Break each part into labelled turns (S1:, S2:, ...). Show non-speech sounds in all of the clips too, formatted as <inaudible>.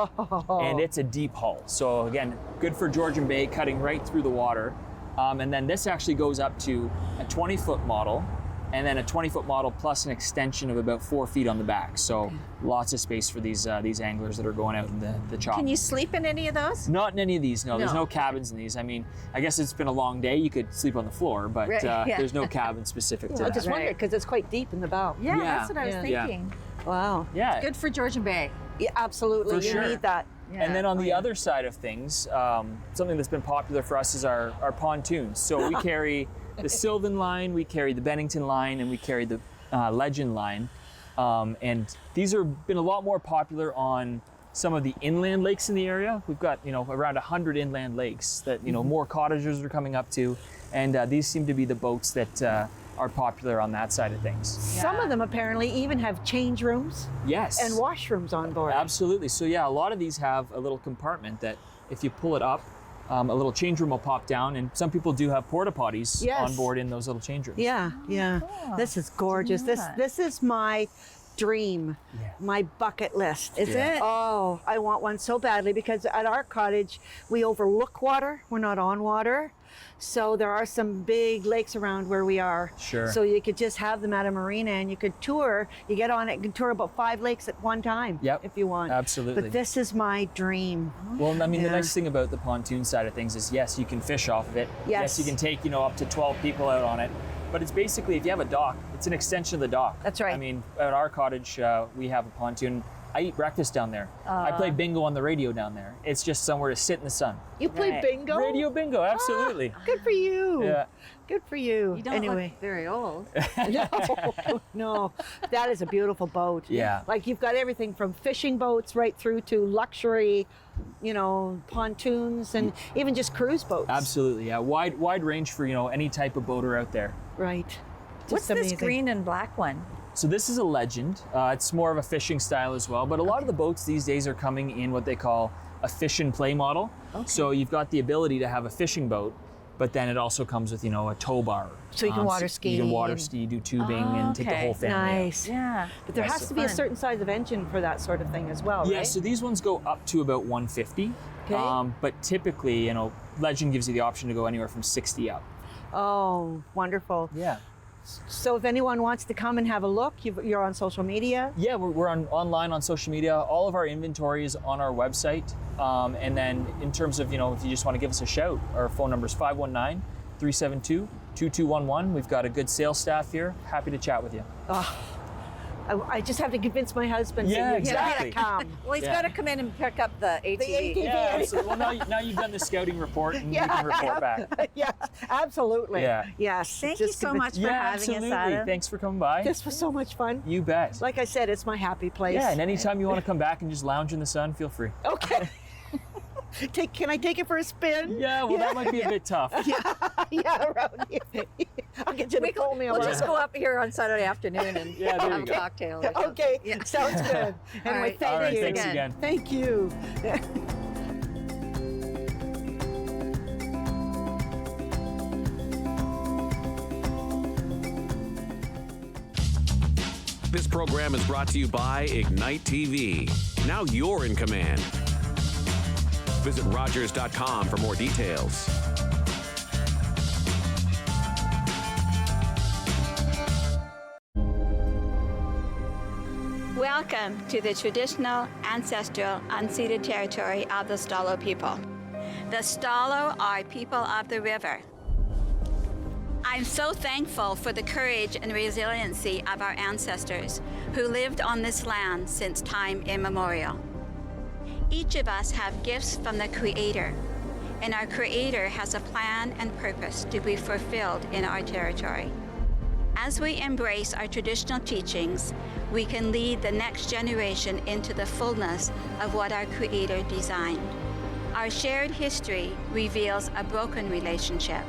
S1: Oh.
S2: and it's a deep hull. So again, good for Georgian Bay, cutting right through the water. Um, and then this actually goes up to a 20 foot model, and then a 20 foot model plus an extension of about four feet on the back. So lots of space for these uh, these anglers that are going out in the the chop.
S1: Can you sleep in any of those?
S2: Not in any of these. No, there's
S1: No.
S2: no cabins in these. I mean, I guess it's been a long day. You could sleep on the floor, but
S1: Right,
S2: uh,
S1: <laughs> yeah.
S2: there's no cabin
S1: <laughs>
S2: specific to
S3: I
S2: that.
S3: just
S1: Right.
S3: wondered because it's quite deep in the bow.
S1: Yeah,
S2: Yeah.
S1: that's what I was
S2: Yeah.
S1: thinking.
S3: Wow.
S2: yeah,
S1: Good for Georgian Bay.
S3: Yeah, absolutely.
S2: For
S3: you
S2: sure.
S3: need that.
S1: Yeah.
S2: And then on
S1: Oh,
S2: the
S1: yeah.
S2: other side of things, um, something that's been popular for us is our, our pontoons.
S1: <laughs>
S2: So we carry the Sylvan line, we carry the Bennington line, and we carry the uh, Legend line. Um, and these are been a lot more popular on some of the inland lakes in the area. We've got you know around 100 inland lakes that you know
S1: Mm-hmm.
S2: more cottagers are coming up to, and uh, these seem to be the boats that uh, are popular on that side of things.
S3: Some
S1: Yeah.
S3: of them apparently even have change rooms
S2: Yes,
S3: and washrooms on board.
S2: Absolutely. So yeah, a lot of these have a little compartment that if you pull it up, um, a little change room will pop down, and some people do have porta potties
S3: Yes.
S2: on board in those little change rooms.
S3: Yeah, yeah. This is gorgeous. This
S1: that.
S3: this is my dream,
S2: Yeah.
S3: my bucket list.
S1: Is
S2: Yeah.
S1: it?
S3: Oh, I want one so badly because at our cottage we overlook water. We're not on water. So there are some big lakes around where we are.
S2: Sure.
S3: So you could just have them at a marina and you could tour. You get on it and can tour about five lakes at one time
S2: Yep,
S3: if you want.
S2: absolutely.
S3: But this is my dream.
S2: Well, I mean,
S3: Yeah.
S2: the nice thing about the pontoon side of things is yes, you can fish off of it.
S3: Yes.
S2: you can take you know up to 12 people out on it. But it's basically if you have a dock, it's an extension of the dock.
S3: That's right.
S2: I mean, at our cottage, uh, we have a pontoon. I eat breakfast down there. I
S3: Uh.
S2: play bingo on the radio down there. It's just somewhere to sit in the sun.
S3: You play
S1: Right.
S3: bingo? Ah.
S2: Radio bingo, absolutely.
S3: Good for you.
S2: Yeah.
S3: Good for you.
S1: You don't
S3: anyway.
S1: look very <laughs> old.
S3: <laughs> no, no, that is a beautiful boat.
S2: Yeah.
S3: Like you've got everything from fishing boats right through to luxury, you know, pontoons and even just cruise boats.
S2: Absolutely, yeah. Wide wide range for you know any type of boater out there.
S3: Right. Just
S1: What's
S3: amazing.
S1: this green and black one?
S2: So this is a legend. Uh, it's more of a fishing style as well, but a lot of the boats these days are coming in what they call a fish and play model. So you've got the ability to have a fishing boat, but then it also comes with you know a tow bar. Um,
S3: So you can water
S2: You
S3: ski
S2: can water
S3: and-
S2: ski, do tubing,
S1: Oh,
S2: and take the
S1: okay.
S2: whole family. out.
S3: Nice.
S1: Yeah.
S3: But there
S2: That's
S3: has
S2: so
S3: to be a
S1: fun.
S3: certain size of engine for that sort of thing as well,
S2: Yeah,
S3: right?
S2: so these ones go up to about 150.
S3: Okay.
S2: but typically, you know, Legend gives you the option to go anywhere from 60 up.
S3: oh, wonderful.
S2: Yeah.
S3: So if anyone wants to come and have a look, you've, you're on social media.
S2: Yeah, we're, we're on online on social media. All of our inventory is on our website. Um, and then in terms of, you know, if you just want to give us a shout, our phone number is 519-372-2211. We've got a good sales staff here. Happy to chat with you.
S3: I, I just have to convince my husband.
S2: Yeah,
S3: that you
S2: exactly.
S3: Gotta come.
S1: <laughs>
S3: <laughs>
S1: Well, he's
S2: Yeah.
S1: got to come in and pick up the ATV.
S3: ATV. Yeah.
S2: absolutely. <laughs> Well, now, you- now you've done the scouting report and you
S3: Yeah.
S2: can report back.
S3: yes, absolutely.
S2: Yeah.
S3: Yes.
S1: Thank
S3: just
S1: you so
S3: convince-
S1: much for
S2: yeah,
S1: having
S2: absolutely.
S1: us, Adam.
S2: Thanks for coming by.
S3: This was so much fun.
S2: you bet.
S3: Like I said, it's my happy place.
S2: yeah, and anytime you want to come back and just lounge in the sun, feel free.
S3: okay. <laughs> take can I take it for a spin?
S2: Yeah, well, that might be a bit tough.
S3: <laughs> yeah, around here. <laughs> I'll get you to
S1: We
S3: call me
S1: will
S3: around.
S1: just go up here on Saturday afternoon <laughs> and
S2: Yeah, there
S1: have a
S2: you go.
S1: cocktail. Or something.
S3: Okay,
S1: Yeah.
S3: sounds
S1: <laughs>
S3: good. Anyway,
S1: right.
S3: thank
S2: All right,
S3: you.
S2: thanks
S1: Again.
S2: again.
S3: Thank you.
S4: This program is brought to you by Ignite TV. Now you're in command. Visit Rogers.com for more details.
S5: Welcome to the traditional, ancestral, unceded territory of the Stalo people. The Stalo are people of the river. I'm so thankful for the courage and resiliency of our ancestors who lived on this land since time immemorial. Each of us have gifts from the Creator, and our Creator has a plan and purpose to be fulfilled in our territory. As we embrace our traditional teachings, we can lead the next generation into the fullness of what our Creator designed. Our shared history reveals a broken relationship.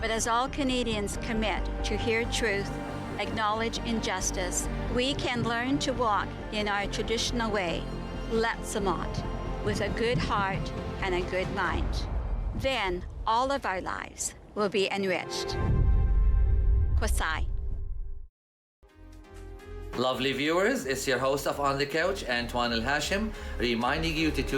S5: But as all Canadians commit to hear truth, acknowledge injustice, we can learn to walk in our traditional way, Letsamot, with a good heart and a good mind. Then all of our lives will be enriched. Kwasai.
S6: Lovely viewers, it's your host of On the Couch, Antoine El Hashim, reminding you to tune